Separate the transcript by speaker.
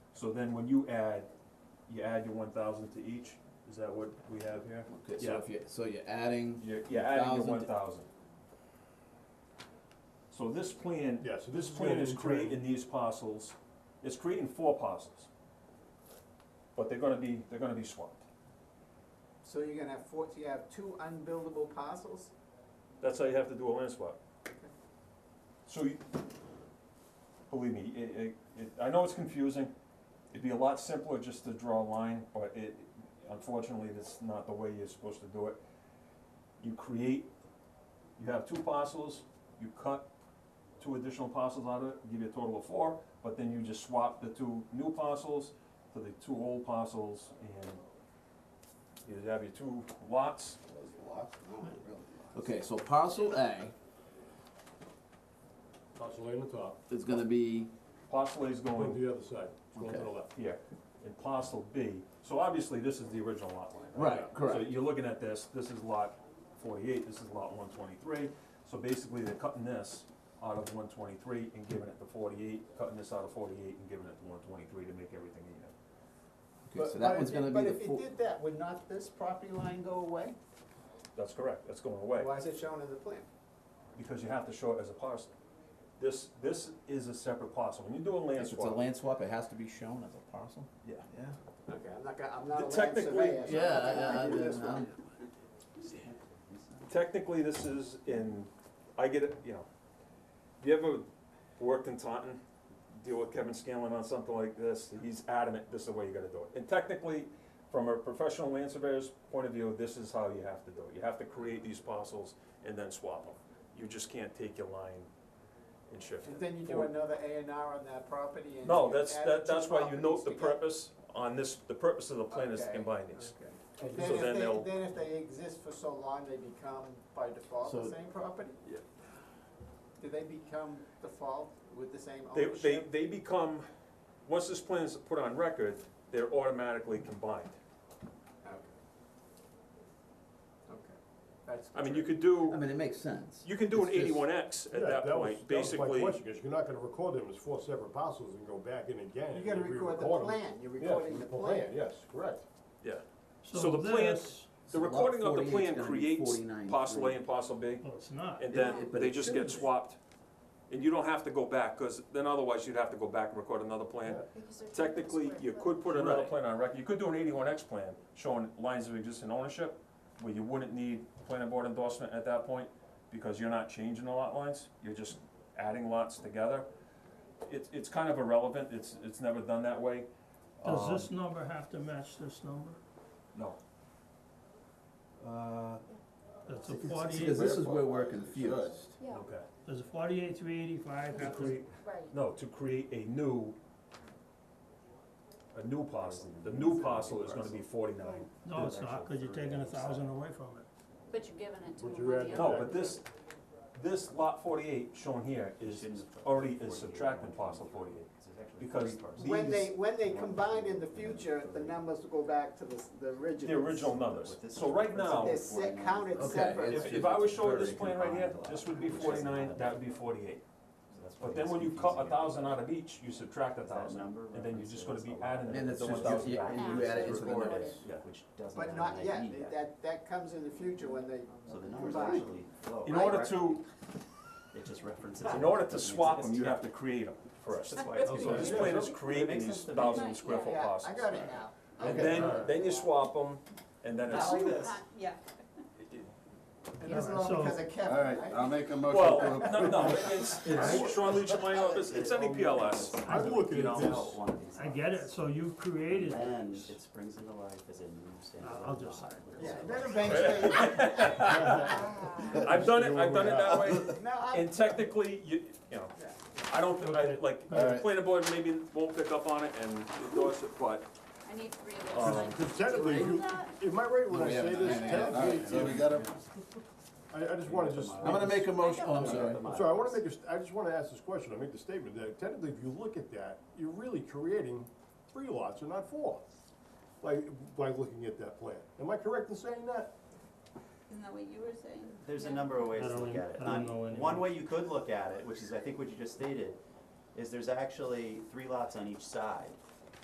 Speaker 1: So then when you add, you add your one thousand to each, is that what we have here?
Speaker 2: Okay, so
Speaker 1: Yeah.
Speaker 2: if you, so you're adding,
Speaker 1: You're, you're adding your
Speaker 2: 1,000
Speaker 1: one thousand. So this plan,
Speaker 3: Yeah, so
Speaker 1: this plan is creating these parcels, it's creating four parcels. But they're gonna be, they're gonna be swamped.
Speaker 4: So you're gonna have four, you have two unbuildable parcels?
Speaker 1: That's how you have to do a land swap. So you, believe me, it, it, it, I know it's confusing, it'd be a lot simpler just to draw a line, but it, unfortunately, that's not the way you're supposed to do it. You create, you have two parcels, you cut two additional parcels out of it, give you a total of four, but then you just swap the two new parcels to the two old parcels, and you have your two lots,
Speaker 2: okay, so parcel A
Speaker 3: Parcel A on the top,
Speaker 2: is gonna be,
Speaker 1: parcel A's
Speaker 3: going
Speaker 1: going
Speaker 3: to the other side, it's going to the
Speaker 2: Okay.
Speaker 3: left.
Speaker 1: here, and parcel B, so obviously this is the original lot line, right?
Speaker 2: right, correct.
Speaker 1: So you're looking at this, this is lot forty-eight, this is lot one twenty-three, so basically they're cutting this out of one twenty-three and giving it to forty-eight, cutting this out of forty-eight and giving it to one twenty-three to make everything even.
Speaker 2: Okay, so
Speaker 4: But-
Speaker 2: that
Speaker 4: but
Speaker 2: one's
Speaker 4: if
Speaker 2: gonna
Speaker 4: you-
Speaker 2: be the
Speaker 4: But if you
Speaker 2: four,
Speaker 4: did that, would not this property line go away?
Speaker 1: That's correct, that's going away,
Speaker 4: Why is it shown in the plan?
Speaker 1: because you have to show it as a parcel. This, this is a separate parcel, when you do a land
Speaker 2: if it's a
Speaker 1: swap,
Speaker 2: land swap, it has to be shown as a parcel?
Speaker 1: yeah,
Speaker 2: Yeah.
Speaker 4: Okay, I'm not gonna, I'm not a land surveyor.
Speaker 1: Technically,
Speaker 4: so I'm not gonna
Speaker 2: Yeah,
Speaker 4: do this
Speaker 2: yeah,
Speaker 4: one.
Speaker 1: technically this is in, I get it, you know, if you ever worked in Taunton, deal with Kevin Scanlon on something like this, he's adamant, this is the way you gotta do it. And technically, from a professional land surveyor's point of view, this is how you have to do it. You have to create these parcels and then swap them. You just can't take your line and shift
Speaker 4: And
Speaker 1: it.
Speaker 4: then you do another A and R on that property and.
Speaker 1: No,
Speaker 4: you
Speaker 1: that's,
Speaker 4: add
Speaker 1: that,
Speaker 4: the two
Speaker 1: that's why you note
Speaker 4: properties
Speaker 1: the
Speaker 4: together.
Speaker 1: purpose on this, the purpose of the plan is to
Speaker 4: Okay.
Speaker 1: combine these.
Speaker 4: Okay.
Speaker 1: Okay.
Speaker 4: Then
Speaker 1: So
Speaker 4: if
Speaker 1: then they'll-
Speaker 4: they, then if they exist for so long, they become by default the
Speaker 2: So-
Speaker 4: same property?
Speaker 1: Yeah.
Speaker 4: Do they become default with the same
Speaker 2: Oh,
Speaker 1: They, they,
Speaker 4: ownership?
Speaker 1: they become, once this plan is put on record, they're automatically combined.
Speaker 4: Okay. Okay, that's.
Speaker 1: I mean, you could do.
Speaker 2: I mean, it makes sense.
Speaker 1: You can do an
Speaker 2: It's just-
Speaker 1: eighty-one X
Speaker 3: Yeah,
Speaker 1: at that point,
Speaker 3: was- That was my
Speaker 1: basically,
Speaker 3: question, because you're not gonna record them as four separate parcels and go back in again.
Speaker 4: You gotta
Speaker 3: and
Speaker 4: record the
Speaker 3: re-record 'em.
Speaker 4: plan, you're
Speaker 3: Yeah,
Speaker 4: recording the
Speaker 3: record
Speaker 4: plan.
Speaker 3: Yes, correct.
Speaker 1: yeah. So
Speaker 5: So
Speaker 1: the plan-
Speaker 5: this,
Speaker 1: The
Speaker 2: So lot
Speaker 1: recording of the
Speaker 2: 48 's
Speaker 1: plan
Speaker 2: gonna be
Speaker 1: creates
Speaker 2: 49,
Speaker 1: parcel A
Speaker 2: three.
Speaker 1: and parcel B,
Speaker 5: well, Oh, it's not.
Speaker 1: and
Speaker 2: Yeah,
Speaker 1: then
Speaker 2: but
Speaker 1: they
Speaker 2: it
Speaker 1: just
Speaker 2: should
Speaker 1: get
Speaker 2: be.
Speaker 1: swapped. And you don't have to go back, cause then otherwise you'd have to go back and record another plan.
Speaker 3: Yeah.
Speaker 1: Technically, you could put another
Speaker 2: Right.
Speaker 1: plan on record, you could do an eighty-one X plan showing lines of existing ownership, where you wouldn't need planning board endorsement at that point, because you're not changing the lot lines, you're just adding lots together. It's, it's kind of irrelevant, it's, it's never done that way.
Speaker 5: Does
Speaker 1: Um,
Speaker 5: this number have to match this number?
Speaker 1: No. Uh,
Speaker 5: Does the
Speaker 2: Because
Speaker 5: forty-eight,
Speaker 2: this is where we're confused.
Speaker 6: Yeah,
Speaker 1: Um, okay.
Speaker 5: does the forty-eight, three eighty-five have to,
Speaker 6: right.
Speaker 1: No, to create a new, a new parcel. The new parcel is gonna be forty-nine.
Speaker 5: no, it's not, cause you're taking a thousand away from it.
Speaker 6: But you're giving it to
Speaker 3: Would
Speaker 6: them
Speaker 3: you
Speaker 6: on
Speaker 3: add
Speaker 6: the
Speaker 3: that?
Speaker 1: No,
Speaker 6: other.
Speaker 1: but this, this lot forty-eight shown here is already is subtracting parcel forty-eight. Because
Speaker 4: When they,
Speaker 1: these,
Speaker 4: when they combine in the future, the numbers will go back to the, s- the original.
Speaker 1: the original numbers. So right now,
Speaker 4: They're se- counted
Speaker 2: Okay,
Speaker 4: separate.
Speaker 2: it's-
Speaker 1: if, if I was showing this plan right here, this would be forty-nine, that would be forty-eight. But then when you cut a thousand out of each, you subtract a thousand, and then you're just gonna be adding
Speaker 2: And
Speaker 1: it
Speaker 2: it's
Speaker 1: to one
Speaker 2: just,
Speaker 1: thousand.
Speaker 2: you- and you add it into the
Speaker 6: Recorded.
Speaker 2: numbers.
Speaker 1: Yeah.
Speaker 7: Which doesn't
Speaker 4: But
Speaker 7: have
Speaker 4: not
Speaker 7: an
Speaker 4: yet,
Speaker 7: ID
Speaker 4: They- that, that comes in the future when they
Speaker 7: So the numbers
Speaker 4: combine.
Speaker 7: actually flow.
Speaker 1: In order to,
Speaker 7: It just references.
Speaker 1: in
Speaker 7: it,
Speaker 1: order to
Speaker 7: doesn't
Speaker 1: swap them,
Speaker 7: exist
Speaker 1: you
Speaker 7: yet.
Speaker 1: have to create them first. Oh,
Speaker 7: That's why it's.
Speaker 1: So this
Speaker 3: Yeah.
Speaker 1: plan is creating
Speaker 7: Makes
Speaker 1: these
Speaker 7: sense to me.
Speaker 1: thousand square foot
Speaker 4: Yeah, I
Speaker 1: parcels.
Speaker 4: got it now.
Speaker 1: And
Speaker 4: Okay.
Speaker 1: then, then you swap them, and then it's,
Speaker 7: Not like this.
Speaker 6: Yeah.
Speaker 4: And this is
Speaker 5: Yeah.
Speaker 4: all
Speaker 5: So-
Speaker 4: because of Kevin,
Speaker 8: All right,
Speaker 4: right?
Speaker 8: I'll make a
Speaker 1: well,
Speaker 8: motion to
Speaker 1: no, no, it's, it's Sean Leach in my office, it's any PLS.
Speaker 3: I'm looking at
Speaker 7: It's
Speaker 3: this,
Speaker 7: out one of these
Speaker 5: I get it,
Speaker 7: lots.
Speaker 5: so you created
Speaker 7: Then
Speaker 5: this.
Speaker 7: it springs into life as a new standalone.
Speaker 5: I'll just
Speaker 7: lot.
Speaker 5: sign it.
Speaker 4: Yeah, then eventually,
Speaker 1: I've done it, I've done it that way,
Speaker 4: no, I,
Speaker 1: and technically, you, you know, I don't, think I, like, the
Speaker 8: Alright.
Speaker 1: planning board maybe won't pick up on it and endorse it, but
Speaker 6: I need three of
Speaker 1: Um,
Speaker 6: those signed.
Speaker 3: because Uh, technically,
Speaker 6: Do I
Speaker 3: if
Speaker 6: do
Speaker 3: you,
Speaker 6: that?
Speaker 3: am I right when I
Speaker 8: We
Speaker 3: say
Speaker 8: haven't
Speaker 3: this?
Speaker 8: done anything. All right, so we
Speaker 3: Technically,
Speaker 8: gotta,
Speaker 3: I, I just wanna just.
Speaker 2: I'm gonna make a motion, oh, I'm sorry.
Speaker 3: I'm sorry, I wanna make a, st- I just wanna ask this question, I make the statement that technically, if you look at that, you're really creating three lots and not four. Like, by looking at that plan, am I correct in saying that?
Speaker 6: Isn't that what you were saying?
Speaker 7: There's a
Speaker 6: Yeah.
Speaker 7: number of ways
Speaker 5: I
Speaker 7: to
Speaker 5: don't
Speaker 7: look
Speaker 5: know-
Speaker 7: at it.
Speaker 5: I don't
Speaker 7: Um,
Speaker 5: know any-
Speaker 7: One way you could look at it, which is I think what you just stated, is there's actually three lots on each side.